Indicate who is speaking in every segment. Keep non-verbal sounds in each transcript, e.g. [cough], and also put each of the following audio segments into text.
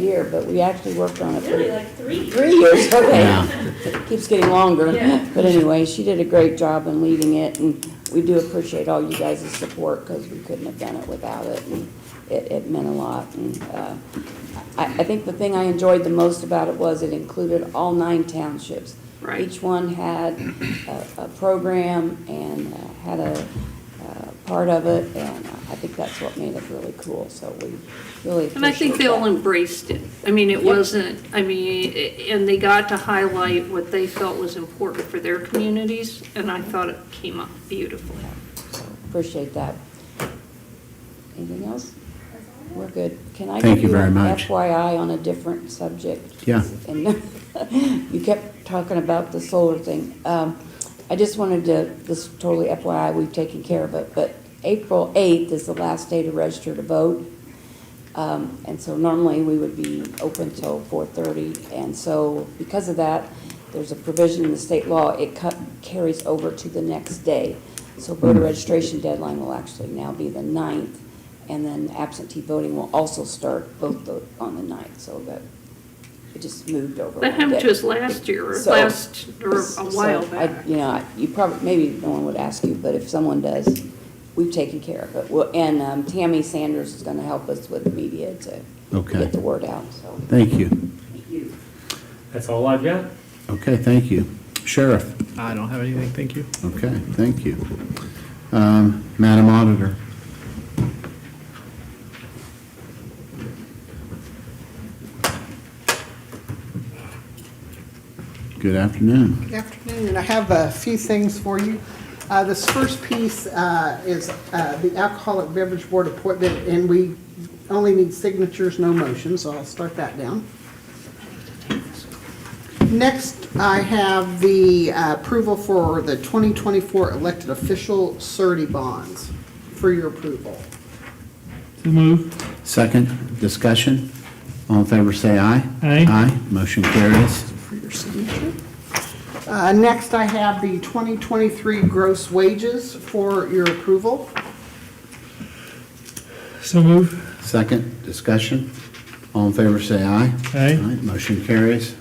Speaker 1: year, but we actually worked on it for
Speaker 2: Really, like three.
Speaker 1: Three
Speaker 3: [laughs]
Speaker 1: years,
Speaker 3: Yeah.
Speaker 1: okay. Keeps getting longer.
Speaker 2: Yeah.
Speaker 1: But anyway, she did a great job in leading it, and we do appreciate all you guys' support, because we couldn't have done it without it, and it, it meant a lot. And uh, I, I think the thing I enjoyed the most about it was it included all nine townships.
Speaker 3: Right.
Speaker 1: Each one had a, a program and uh, had a uh, part of it, and I think that's what made it really cool, so we really appreciate that.
Speaker 3: And I think they all embraced it. I mean, it
Speaker 1: Yep.
Speaker 3: wasn't, I mean, i- and they got to highlight what they felt was important for their communities, and I thought it came up beautifully.
Speaker 1: So, Appreciate that. Anything else? We're good. Can I
Speaker 4: Thank
Speaker 1: give
Speaker 4: you
Speaker 1: you
Speaker 4: very
Speaker 1: an
Speaker 4: much.
Speaker 1: FYI on a different subject?
Speaker 4: Yeah.
Speaker 1: And [laughs] you kept talking about the solar thing. Um, I just wanted to, this is totally FYI, we've taken care of it, but April 8th is the last day to register to vote. Um, And so normally, we would be open till 4:30. And so because of that, there's a provision in the state law, it cut- carries over to the next day. So voter registration deadline will actually now be the 9th, and then absentee voting will also start both the- on the 9th, so that it just moved over.
Speaker 3: That
Speaker 1: one
Speaker 3: happened
Speaker 1: day.
Speaker 3: to us last year, or
Speaker 1: So-
Speaker 3: last, or a while
Speaker 1: so I-
Speaker 3: back.
Speaker 1: You know, I- you probably, maybe no one would ask you, but if someone does, we've taken care of it. Well, And um, Tammy Sanders is going to help us with the media to
Speaker 4: Okay.
Speaker 1: get the word out, so.
Speaker 4: Thank you.
Speaker 5: That's all I've got.
Speaker 4: Okay, thank you. Sheriff?
Speaker 6: I don't have anything, thank you.
Speaker 4: Okay, thank you. Um, Madam Auditor? Good afternoon.
Speaker 7: Good afternoon. I have a few things for you. Uh, This first piece uh, is uh, the Alcoholic Beverage Board appointment, and we only need signatures, no motions, so I'll start that down. Next, I have the uh, approval for the 2024 elected official surety bonds for your approval.
Speaker 4: Second, discussion. All in favor, say aye.
Speaker 6: Aye.
Speaker 4: Aye, motion carries.
Speaker 7: for your signature. Uh, Next, I have the 2023 gross wages for your approval.
Speaker 6: So move.
Speaker 4: Second, discussion. All in favor, say aye.
Speaker 6: Aye.
Speaker 4: Motion carries.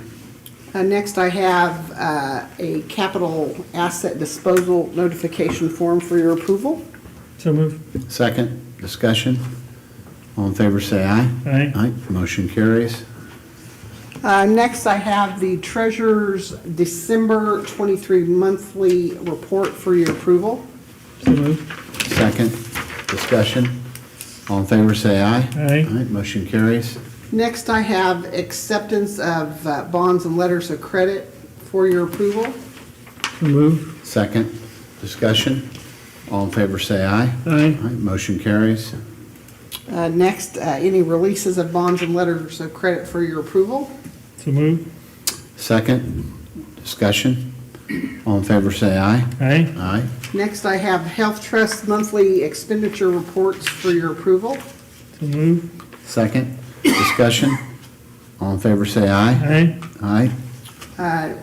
Speaker 7: Uh, Next, I have uh, a capital asset disposal notification form for your approval.
Speaker 6: So move.
Speaker 4: Second, discussion. All in favor, say aye.
Speaker 6: Aye.
Speaker 4: Aye, motion carries.
Speaker 7: Uh, Next, I have the treasurer's December 23 monthly report for your approval.
Speaker 6: So move.
Speaker 4: Second, discussion. All in favor, say aye.
Speaker 6: Aye.
Speaker 4: motion carries.
Speaker 7: Next, I have acceptance of uh, bonds and letters of credit for your approval.
Speaker 6: So move.
Speaker 4: Second, discussion. All in favor, say aye.
Speaker 6: Aye.
Speaker 4: motion carries.
Speaker 7: Uh, Next, uh, any releases of bonds and letters of credit for your approval.
Speaker 6: So move.
Speaker 4: Second, discussion. All in favor, say aye.
Speaker 6: Aye.
Speaker 4: Aye,
Speaker 7: Next, I have Health Trust monthly expenditure reports for your approval.
Speaker 6: So move.
Speaker 4: second, discussion. All in favor, say aye.
Speaker 6: Aye.
Speaker 4: Aye,
Speaker 7: Uh,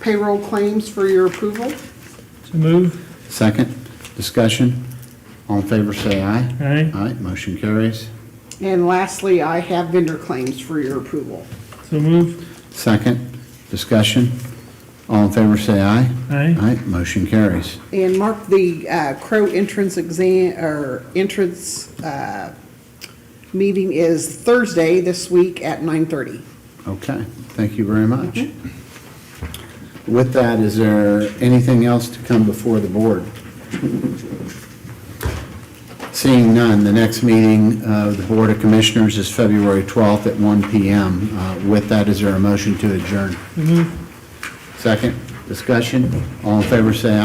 Speaker 7: Payroll claims for your approval.
Speaker 6: So move.
Speaker 4: second, discussion. All in favor, say aye.
Speaker 6: Aye.
Speaker 4: Aye, motion carries.
Speaker 7: And lastly, I have vendor claims for your approval.
Speaker 6: So move.
Speaker 4: Second, discussion. All in favor, say aye.
Speaker 6: Aye.
Speaker 4: Aye, motion carries.
Speaker 7: And mark the uh, Crow entrance exam, or entrance uh, meeting is Thursday this week at 9:30.
Speaker 4: Okay, thank you very much. With that, is there anything else to come before the board? Seeing none, the next meeting of the Board of Commissioners is February 12th at 1 PM. Uh, With that, is there a motion to adjourn?
Speaker 6: So move.
Speaker 4: Second, discussion. All in favor, say aye.